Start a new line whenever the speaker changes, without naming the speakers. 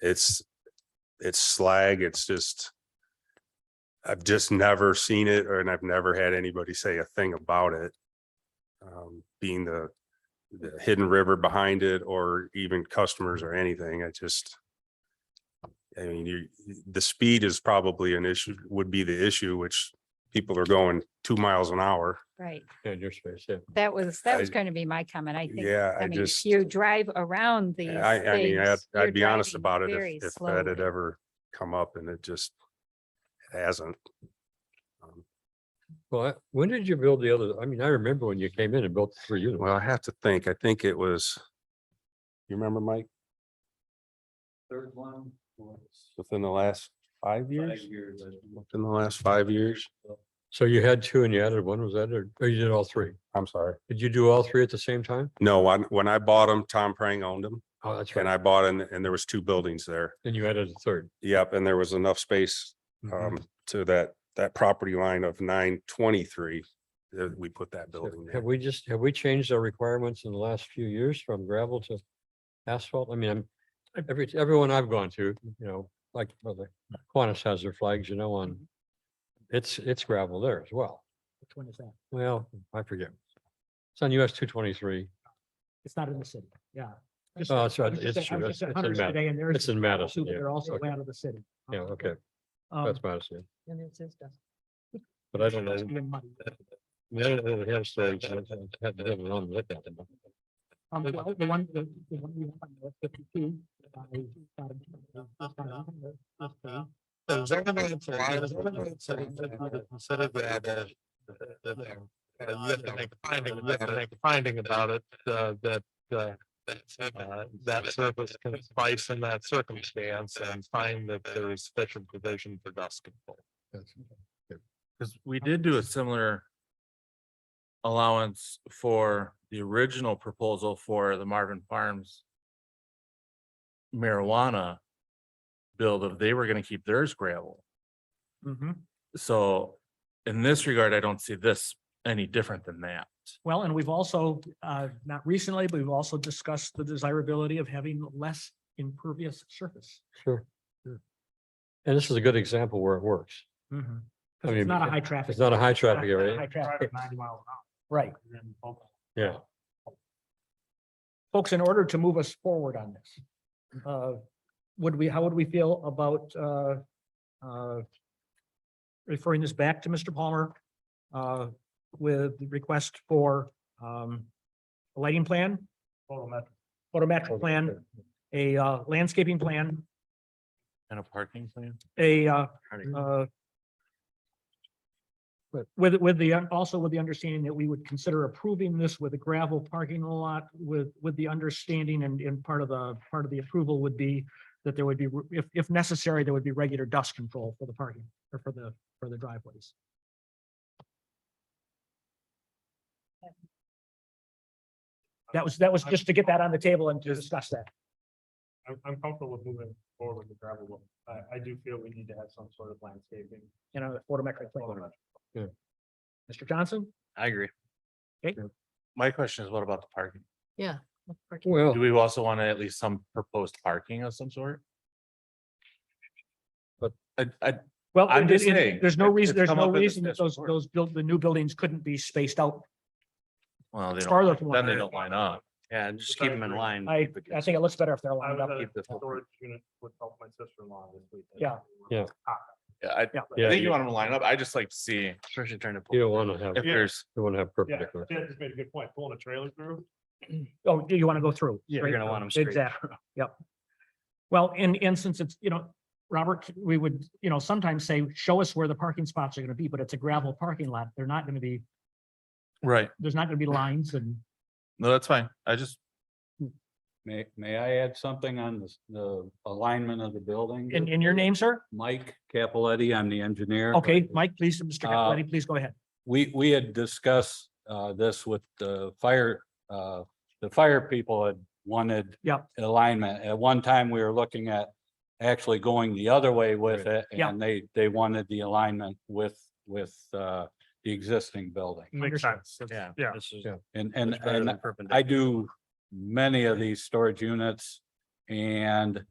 It's, it's slag. It's just, I've just never seen it or, and I've never had anybody say a thing about it. Um, being the, the hidden river behind it or even customers or anything. I just, I mean, you, the speed is probably an issue, would be the issue, which people are going two miles an hour.
Right,
in your space, yeah.
that was, that was
I-
going to be my comment, I think.
Yeah, I
I mean, if
just.
you drive around these
I, I mean, I'd,
things, you're
I'd be honest
driving
about it
very
if, if that had
slowly.
ever come up and it just it hasn't. Um,
Well, I- when did you build the other, I mean, I remember when you came in and built the three units.
Well, I have to think. I think it was, you remember, Mike,
Third one was
within the last five
five
years,
years. I think.
within the last five years?
So you had two and you added one, was that, or or you did all three?
I'm sorry.
Did you do all three at the same time?
No, when, when I bought them, Tom Prang owned them
Oh, that's
and
right.
I bought in, and there was two buildings there.
And you added a third.
Yep, and there was enough space
Mhm.
um to that, that property line of nine twenty-three. that we put that
So
building there.
Have we just, have we changed our requirements in the last few years from gravel to asphalt? I mean, I'm, every, everyone I've gone to, you know, like, well, the Qantas has their flags, you know, on,
Mm-hmm.
it's, it's gravel there as well.
Which one is that?
Well, I forget. It's on US two twenty-three.
It's not in the city, yeah. Just-
Oh, that's right.
I was just
It's
saying- I
true.
was
It's-
just at
it's in
Hunter's
Madison.
today and there is
It's in
gravel
Madison,
too, but
yeah.
They're also
Okay.
out of the city.
Yeah, okay.
Um,
That's Madison.
And it's, it's. dust.
But I don't know.
It's been muddy.
I don't know if it has flags. I haven't- haven't had it on like that.
Um, the the one, the, the one we want was fifty-two. by- by-
So Zermatt, Zermatt, considered that uh, uh, uh, you have to make finding, you have to make finding about it, uh, that, uh, uh, that service can suffice in that circumstance and find that there is special provision for dust control.
Cause we did do a similar. Allowance for the original proposal for the Marvin Farms. Marijuana. Build of, they were gonna keep theirs gravel.
Mm-hmm.
So in this regard, I don't see this any different than that.
Well, and we've also, uh, not recently, but we've also discussed the desirability of having less impervious surface.
Sure. sure. Hmm. And this is a good example where it works. I
Mm-hmm. Because
mean,
it's not a high traffic.
It's not a high traffic
not- not a high
area.
traffic, 90 mile an hour. Right.
Yeah.
Folks, in order to move us forward on this, uh, would we, how would we feel about uh, uh, referring this back to Mr. Palmer uh, with the request for um, a lighting plan? Photometric. Photometric plan, a uh, landscaping plan,
And a parking plan?
a uh,
Parking.
uh,
But-
With, with the, un- also with the understanding that we would consider approving this with a gravel parking lot with, with the understanding and, and part of the, part of the approval would be that there would be, re- if, if necessary, there would be regular dust control for the parking or for the, for the driveways. That was, that was just to get that on the table and to discuss that.
I'm, I'm comfortable with moving forward with the gravel. one. I, I do feel we need to have some sort of landscaping.
in a photometric plan.
Photometric.
Yeah.
Mr. Johnson?
I agree.
Okay.
My question is, what about the parking?
Well,
Do we also want to at least some proposed parking of some sort?
But-
I, I,
Well,
I'm
and
just
it- it-
saying,
There's no
it's-
reason,
it's
there's
come
no
up in
reason that
discussion
those,
before.
those built, the new buildings couldn't be spaced out
well, they don't,
farther from. one
then they
another.
don't line up.
Yeah, just keep them in line.
Hmm,
I, I think it looks better if they're
I
lined up.
was
keep
at a
this one.
storage unit with help my sister-in-law this week.
Yeah.
Yeah.
Yeah, I,
Yeah.
Yeah,
I think
you-
you want them to line up. I just like to see
Especially trying to.
you
pull.
don't want to have,
if
you
Yeah.
there's,
want to have
Yeah,
perpendicular.
Dan just made a good point, pulling a trailer through.
Oh, do you want to go through?
You're
Straight
gonna
through.
want 'em straight
Exactly, yep. Well, and, and since it's, you know, Robert, we would, you know, sometimes say, show us where the parking spots are going to be, but it's a gravel parking lot. They're not going to be,
right,
there's not going to be lines and
no, that's fine. I just,
May, may I add something on this- the alignment of the building?
in, in your name, sir?
Mike Capaletti, I'm the engineer.
Okay, Mike, please, Mr.
Uh,
Capoletti, please go ahead.
We, we had discussed uh, this with the fire, uh, the fire people had wanted
Yep.
alignment. At one time, we were looking at actually going the other way with it.
Yep.
And they, they wanted the alignment with, with uh, the existing building.
Makes
Understood.
sense. That's-
Yeah.
Yeah.
This is.
Yeah.
And, and,
much better
and
than perpendicular.
I do many of these storage units and